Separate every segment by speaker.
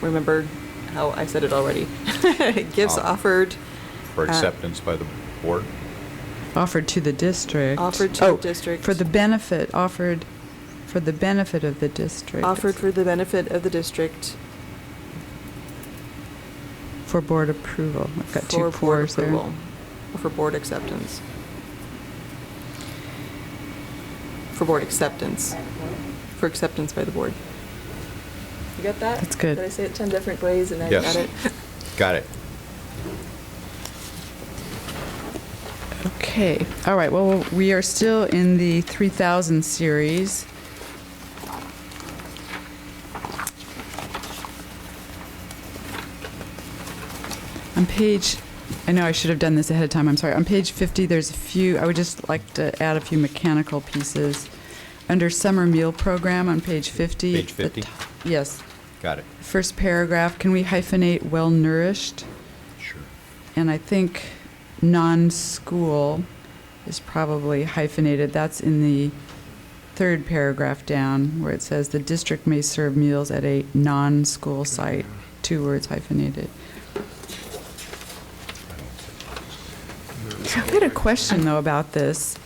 Speaker 1: remember how I said it already. Gives
Speaker 2: Offer.
Speaker 3: Ah.
Speaker 1: offered,
Speaker 2: for
Speaker 1: Uh,
Speaker 2: acceptance by the board?
Speaker 3: Offered to the district.
Speaker 1: Offered to the
Speaker 3: Oh,
Speaker 1: district.
Speaker 3: For the benefit, offered for the benefit of the district.
Speaker 1: offered for the benefit of the district
Speaker 3: For board approval. I've got
Speaker 1: for
Speaker 3: two
Speaker 1: board
Speaker 3: fours there.
Speaker 1: approval, or for board acceptance. For board acceptance, for acceptance by the board. You got that?
Speaker 3: That's good.
Speaker 1: Did I say it 10 different ways and I
Speaker 2: Yes.
Speaker 1: got it?
Speaker 2: Got it.
Speaker 3: Okay, all right, well, we are still in the 3,000 series. On page, I know I should have done this ahead of time, I'm sorry. On page 50, there's a few, I would just like to add a few mechanical pieces. Under summer meal program on page 50.
Speaker 2: Page
Speaker 3: at the
Speaker 2: 50?
Speaker 3: to- Yes.
Speaker 2: Got it.
Speaker 3: First paragraph, can we hyphenate well-nourished?
Speaker 2: Sure.
Speaker 3: And I think non-school is probably hyphenated. That's in the third paragraph down where it says the district may serve meals at a non-school site, two words hyphenated. I had a question though about this.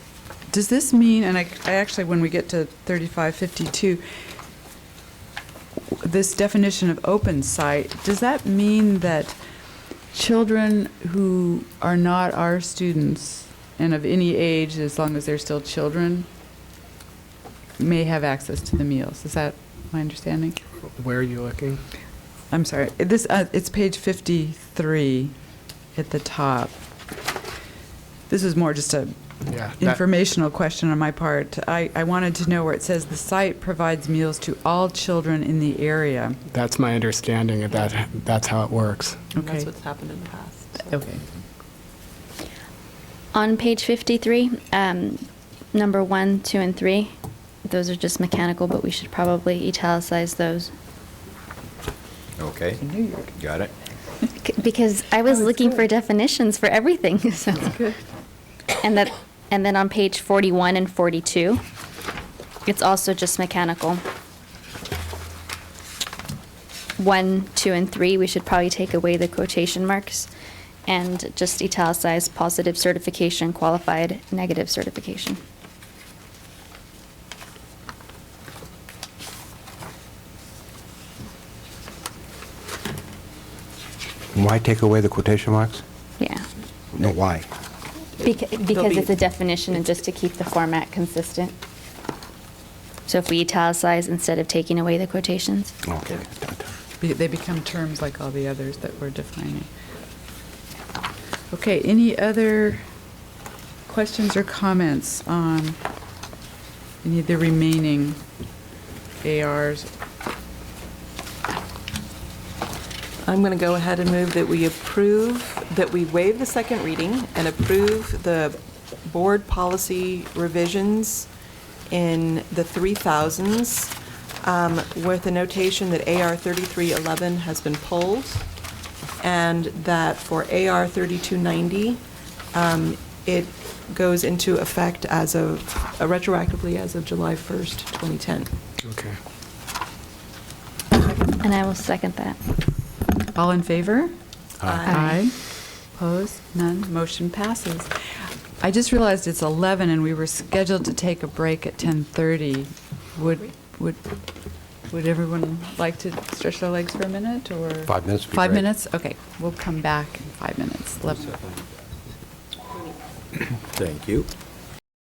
Speaker 3: Does this mean, and I, I actually, when we get to 3552, this definition of open site, does that mean that children who are not our students and of any age, as long as they're still children, may have access to the meals? Is that my understanding?
Speaker 4: Where are you looking?
Speaker 3: I'm sorry, this, uh, it's page 53 at the top. This is more just a
Speaker 4: Yeah. that-
Speaker 3: informational question on my part. I, I wanted to know where it says the site provides meals to all children in the area.
Speaker 4: That's my understanding of that, that's how it works.
Speaker 1: And That's
Speaker 3: Okay.
Speaker 1: what's happened in the past. so.
Speaker 3: Okay.
Speaker 5: On page 53, um, number one, two, and three, those are just mechanical, but we should probably italicize those.
Speaker 2: Okay.
Speaker 3: New York.
Speaker 2: Got it.
Speaker 5: C- Because I was
Speaker 3: Oh, it's
Speaker 5: looking for
Speaker 3: good.
Speaker 5: definitions for everything, so. And that, and then on page 41 and 42, it's also just mechanical. One, two, and three, we should probably take away the quotation marks and just italicize positive certification, qualified, negative certification.
Speaker 6: Why take away the quotation marks?
Speaker 5: Yeah.
Speaker 6: No, why?
Speaker 5: Beca-
Speaker 1: They'll
Speaker 5: Because
Speaker 1: be-
Speaker 5: it's a definition and just to keep the format consistent. So if we italicize instead of taking away the quotations.
Speaker 6: Okay.
Speaker 3: Be- They become terms like all the others that we're defining. Okay, any other questions or comments on any of the remaining ARs?
Speaker 1: I'm going to go ahead and move that we approve, that we waive the second reading and approve the board policy revisions in the 3,000s um, with a notation that AR 3311 has been pulled and that for AR 3290, um, it goes into effect as of, uh, retroactively as of July 1st, 2010.
Speaker 4: Okay.
Speaker 5: And I will second that.
Speaker 3: All in favor?
Speaker 5: Aye.
Speaker 3: Opposed? None? Motion passes. I just realized it's 11 and we were scheduled to take a break at 10:30. Would, would, would everyone like to stretch their legs for a minute or?
Speaker 6: Five minutes would be
Speaker 3: Five
Speaker 6: great.
Speaker 3: minutes? Okay, we'll come back in five minutes. Eleven-
Speaker 2: Thank you.